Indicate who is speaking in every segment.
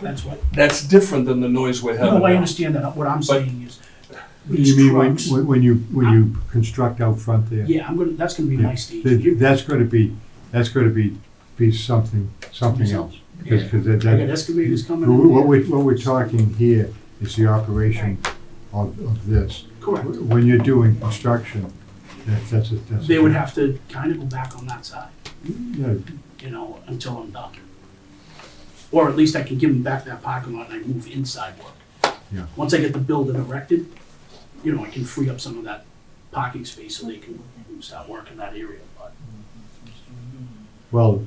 Speaker 1: That's what,
Speaker 2: That's different than the noise we're having
Speaker 1: no, I
Speaker 2: now.
Speaker 1: understand that. What I'm saying is
Speaker 3: You
Speaker 1: these
Speaker 3: mean when,
Speaker 1: trucks,
Speaker 3: when when you, when you construct out front there?
Speaker 1: yeah, I'm gonna, that's gonna be my stage.
Speaker 3: That- That's gonna be, that's gonna be, be something, something else. Because,
Speaker 1: Yeah.
Speaker 3: that,
Speaker 1: I got
Speaker 3: that,
Speaker 1: excavators coming
Speaker 3: what what
Speaker 1: in
Speaker 3: we, what we're talking here is the operation of, of this.
Speaker 1: there. Correct.
Speaker 3: When you're doing construction, that- that's, a- that's. a-
Speaker 1: They would have to kind of go back on that side,
Speaker 3: Yeah,
Speaker 1: you know, until I'm done. Or at least I can give them back that parking lot and I move inside work.
Speaker 3: Yeah.
Speaker 1: Once I get the building erected, you know, I can free up some of that parking space so they can start working that area, but
Speaker 3: Well,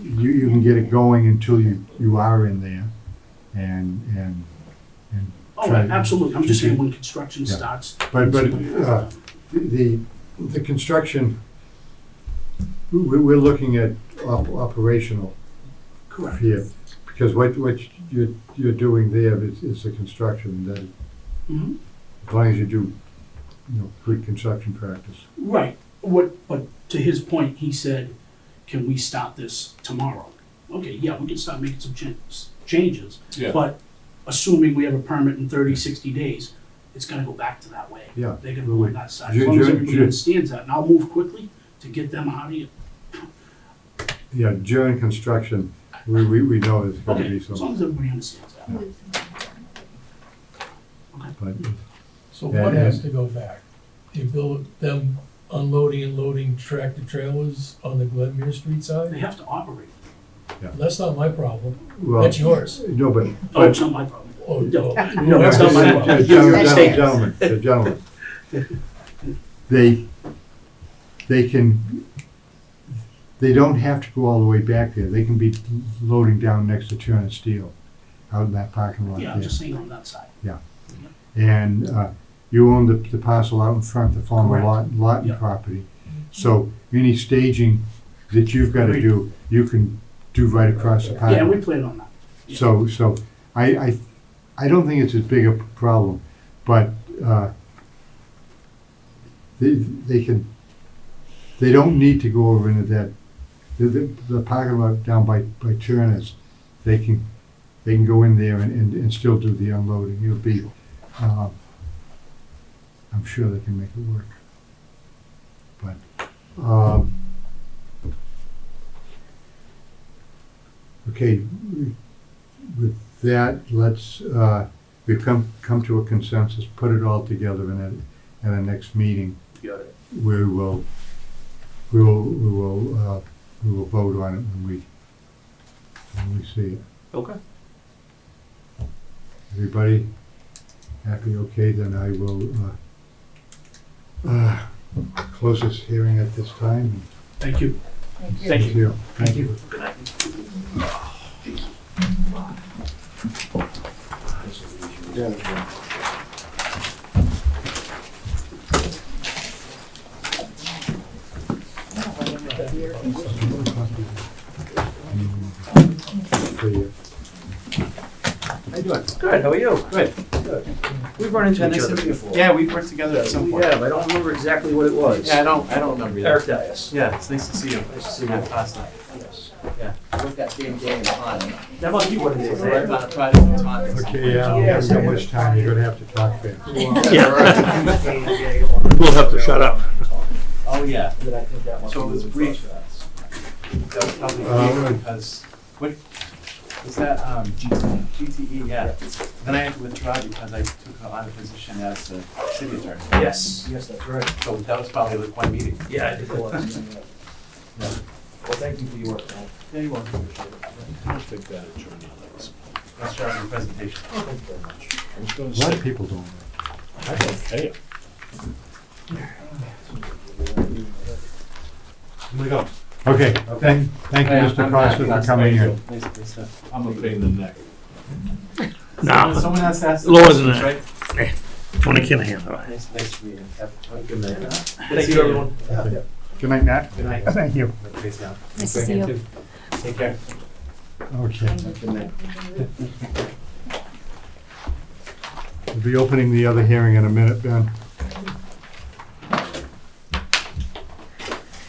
Speaker 3: you, you can get it going until you, you are in there and, and, and,
Speaker 1: Oh,
Speaker 3: Try-
Speaker 1: absolutely, I'm just saying
Speaker 3: Okay.
Speaker 1: when construction
Speaker 3: Yeah.
Speaker 1: starts.
Speaker 3: but, but, uh, The, the construction, we- we're looking at op- operational
Speaker 1: Correct,
Speaker 3: here, because what, what you're, you're doing there is, is the construction, that
Speaker 1: Mhm.
Speaker 3: as long as you do, you know, good construction practice.
Speaker 1: right, what, but to his point, he said, can we stop this tomorrow? Okay, yeah, we can start making some changes, changes,
Speaker 2: Yeah.
Speaker 1: but assuming we have a permit in 30, 60 days, it's gonna go back to that way.
Speaker 3: Yeah,
Speaker 1: They're gonna
Speaker 3: well,
Speaker 1: go
Speaker 3: we-
Speaker 1: on that side, as long
Speaker 3: Ju-
Speaker 1: as
Speaker 3: ju-
Speaker 1: everybody
Speaker 3: ju-
Speaker 1: understands that, and I'll move quickly to get them out of here.
Speaker 3: Yeah, during construction, we, we, we know there's gonna
Speaker 1: Okay,
Speaker 3: be
Speaker 1: as long
Speaker 3: some,
Speaker 1: as everybody understands that.
Speaker 3: but,
Speaker 4: So
Speaker 3: Yeah,
Speaker 4: what
Speaker 3: yeah.
Speaker 4: has to go back? The bill, them unloading and loading tractor trailers on the Glenmere Street
Speaker 1: They
Speaker 4: side?
Speaker 1: have to operate,
Speaker 4: That's not my problem,
Speaker 3: well,
Speaker 4: that's yours.
Speaker 3: no, but.
Speaker 1: oh, it's not my problem.
Speaker 4: Oh,
Speaker 1: No.
Speaker 4: no.
Speaker 3: No,
Speaker 1: that's not my
Speaker 3: but-
Speaker 1: problem.
Speaker 3: Gentlemen,
Speaker 1: That's
Speaker 3: gentlemen,
Speaker 1: theirs.
Speaker 3: gentlemen, gentlemen. They, they can, they don't have to go all the way back there. They can be loading down next to Turner Steel out in that parking lot
Speaker 1: Yeah, I'm
Speaker 3: there.
Speaker 1: just saying on that side,
Speaker 3: And uh, you own the the parcel out in front, the former
Speaker 1: Correct.
Speaker 3: lot Lawton
Speaker 1: Yeah.
Speaker 3: property. So any staging that you've got to
Speaker 1: Agreed.
Speaker 3: do, you can do right across the parking
Speaker 1: yeah,
Speaker 3: lot.
Speaker 1: we plan on that.
Speaker 3: So, so I, I, I don't think it's as big a problem, but, uh, they, they can, they don't need to go over into that, the, the, the parking lot down by, by Turner's. They can, they can go in there and, and, and still do the unloading. It'll be, um, I'm sure they can make it work. But, um, okay, with that, let's, uh, we've come, come to a consensus, put it all together and at, at our next meeting,
Speaker 1: Got it.
Speaker 3: we will, we will, we will, uh, we will vote on it when we, when we see it.
Speaker 1: Okay.
Speaker 3: Everybody happy, okay, then I will, uh, uh, close this hearing at this time.
Speaker 1: Thank you. Thank you.
Speaker 3: Thank you.
Speaker 1: Good night.
Speaker 3: For you.
Speaker 5: How you doing?
Speaker 6: Good, how are you?
Speaker 5: Good.
Speaker 6: We've run into
Speaker 5: Each
Speaker 6: each
Speaker 5: other
Speaker 6: other
Speaker 5: before.
Speaker 6: Yeah, we've worked together at some
Speaker 5: We
Speaker 6: point.
Speaker 5: have, I don't remember exactly what it was.
Speaker 6: Yeah, I don't, I don't remember either.
Speaker 5: Eric Dias.
Speaker 6: Yeah, it's nice to see you.
Speaker 5: Nice to see you.
Speaker 6: That past night.
Speaker 5: Yes.
Speaker 7: Look at game game on.
Speaker 6: That must be what it is, eh?
Speaker 7: Yeah.
Speaker 6: right? About a Friday night conference.
Speaker 3: Okay, uh, we haven't got much time, you're gonna have to talk fast.
Speaker 5: We'll have to shut up.
Speaker 7: Oh, yeah. But I think that must
Speaker 6: So
Speaker 7: be
Speaker 6: there's a
Speaker 7: the
Speaker 6: brief-
Speaker 7: process.
Speaker 6: That was probably
Speaker 3: Uh,
Speaker 6: me because, what, is that, um, GTE? GTE, E, yeah. Then I had to withdraw because I took on a position as the city attorney.
Speaker 5: Yes, yes, that's right.
Speaker 6: So that was probably like one meeting.
Speaker 5: Yeah, I did. Well, thank you for your work, man.
Speaker 6: Yeah, you want.
Speaker 5: I'll take that attorney.
Speaker 6: Let's start your presentation.
Speaker 5: Thank you very much. I was gonna
Speaker 3: A lot
Speaker 5: say,
Speaker 3: of people don't. know.
Speaker 5: I don't care.
Speaker 3: Okay, thank, thank you,
Speaker 6: Yeah,
Speaker 3: Mr.
Speaker 6: I'm
Speaker 3: Costa,
Speaker 6: back.
Speaker 3: for coming here.
Speaker 6: Nice, nice stuff.
Speaker 5: I'm a pain in the neck.
Speaker 6: Someone-
Speaker 8: No,
Speaker 6: Someone has to ask the
Speaker 8: Lower than
Speaker 6: questions,
Speaker 8: that.
Speaker 6: right?
Speaker 8: Tony Kinahan, all right.
Speaker 6: Nice, nice to meet you. Have have a good
Speaker 5: Good
Speaker 6: night.
Speaker 5: night.
Speaker 6: Good to see you, everyone.
Speaker 3: Good night, Matt.
Speaker 6: Good night.
Speaker 3: Thank you.
Speaker 6: Everybody's down.
Speaker 9: Nice to see you.
Speaker 6: Take care.
Speaker 3: Okay,
Speaker 5: Good night.
Speaker 3: we'll be opening the other hearing in a minute, Ben.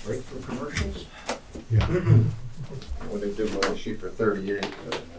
Speaker 7: Break for commercials?
Speaker 3: Yeah.
Speaker 7: What they did was shoot for thirty-eight. but-